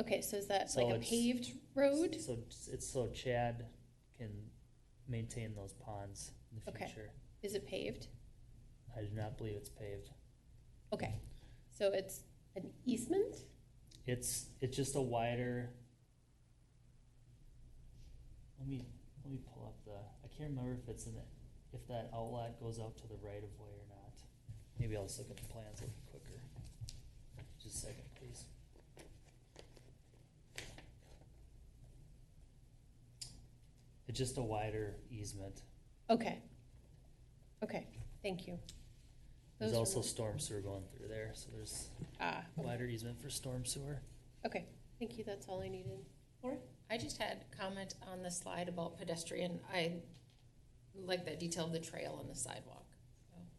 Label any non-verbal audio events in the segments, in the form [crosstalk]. Okay, so is that So like a it's- paved road? So it's so Chad can maintain those ponds in the Okay. future. Is it paved? I do not believe it's paved. Okay, so it's an easement? It's, it's just a wider. Let me, let me pull up the, I can't remember if it's in the, if that outlet goes out to the right of way or not. Maybe I'll just look at the plans a little quicker. Just a second, please. It's just a wider easement. Okay. Okay, thank you. There's Those also were- storm sewer going through there, so there's Ah, wider easement for storm sewer. okay, thank you, that's all I needed. I just had comment on the slide about pedestrian. I like that detail of the trail and the sidewalk. So, um,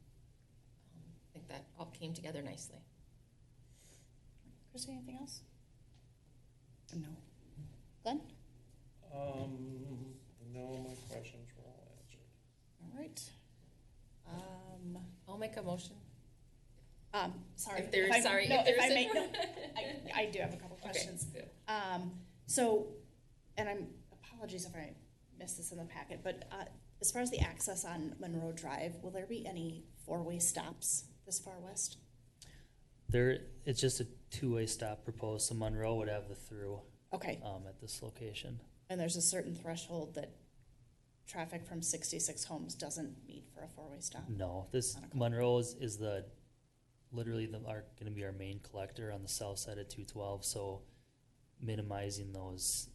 I think that all came together nicely. Chris, anything else? No. Glenn? Um, no, my questions were all answered. All right. Um, I'll make a motion. um, sorry. If there's, I- sorry, no, if there's. I a- may, no, I, I do have a [laughs] couple Okay, questions. good. Um, so, and I'm, apologies if I missed this in the packet, but, uh, as far as the access on Monroe Drive, will there be any four-way stops this far west? There, it's just a two-way stop proposed, so Monroe would have the through, Okay, um, at this location. and there's a certain threshold that traffic from sixty-six homes doesn't meet for a four-way stop? No, this, On a cul- Monroe is, is the, literally the, are gonna be our main collector on the south side of two twelve, so minimizing those,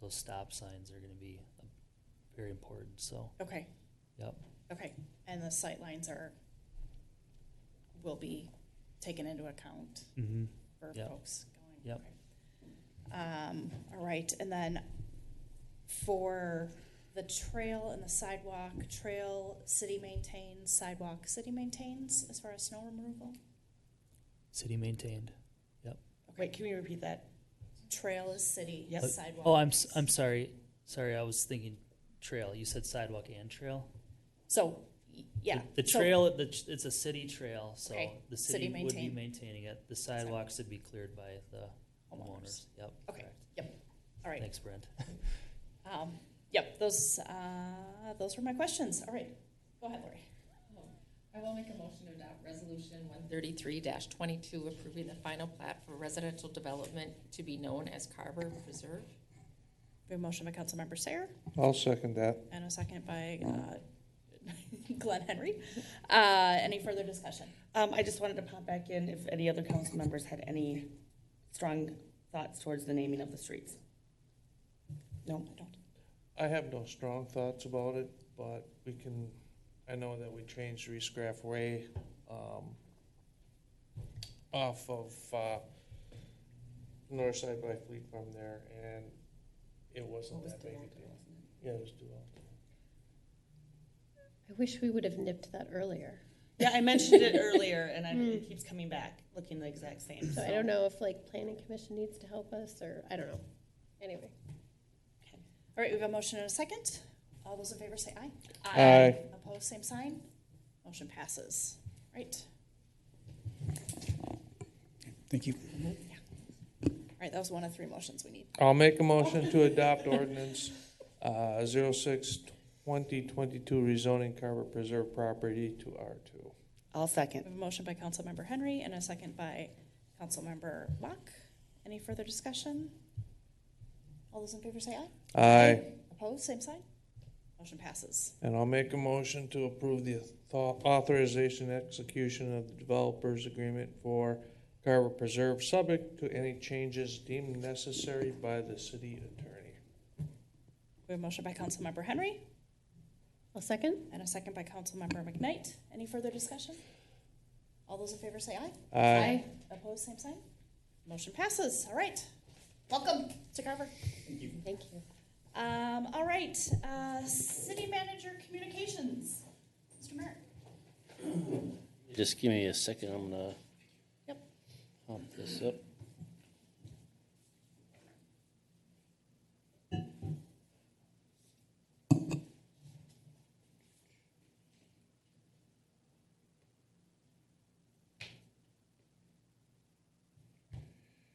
those stop signs are gonna be uh, very important, so, Okay. Yep. Okay, and the sight lines are, will be taken into account mhm. for Yep. folks going? Yep. Okay. Um, all right, and then for the trail and the sidewalk, trail, city maintains, sidewalk, city maintains as far as snow removal? city maintained. Wait, can we repeat that? Trail is city, Yep. sidewalk. Oh, I'm, s- is- I'm sorry, sorry, I was thinking trail, you said sidewalk and trail? So, y- yeah. The the so- trail, the, tr- it's a city trail, so Okay. the City city would be maintain. maintaining it. The sidewalks would be cleared by the homeowners. Yep. Okay. correct. All right, Thanks, Brent. um, yep, those, uh, those were my questions, all right, go ahead, Lori. I will make a motion to adopt resolution one thirty-three twenty-two approving the final plat for residential development to be known as Carver Preserve. We have a motion by Councilmember Sayer I'll second that. and a second by uh, [laughs] Glenn Henry. Uh, Any further discussion? Um, I just wanted to pop back in if any other council members had any strong thoughts towards the naming of the streets. No, I don't. I have no strong thoughts about it, but we can, I know that we changed Reese Graff Way, um, off of, uh, north side by Fleet Farm there, and it wasn't that big a deal. Yeah, it was too long. I wish we would have nipped that earlier. Yeah, I mentioned it earlier and I, it keeps coming back, looking the exact same. So I don't know if like planning commission needs to help us or, I don't know. Anyway. All right, we have a motion and a second. All those in favor say aye. Aye. Opposed, same sign. Motion passes. Right. Thank you. All right, that was one of three motions we need. I'll make a motion to adopt ordinance, uh, zero six twenty twenty-two rezoning Carver Preserve property to R two. I'll We second. have a motion by Councilmember Henry and a second by Councilmember Locke. Any further discussion? All those in favor say aye. Aye. Opposed, same sign. Motion passes. And I'll make a motion to approve the author- authorization and execution of the developers agreement for Carver Preserve, subject to any changes deemed necessary by the city attorney. We have a motion by Councilmember Henry I'll second. And a second by Councilmember McKnight. Any further discussion? All those in favor say aye. Opposed, same sign. Motion passes. All right. Welcome to Carver. Thank you. Um, all right, uh, City Manager Communications, Mr. Merrick. Just give me a second, I'm gonna Yep. pump this up.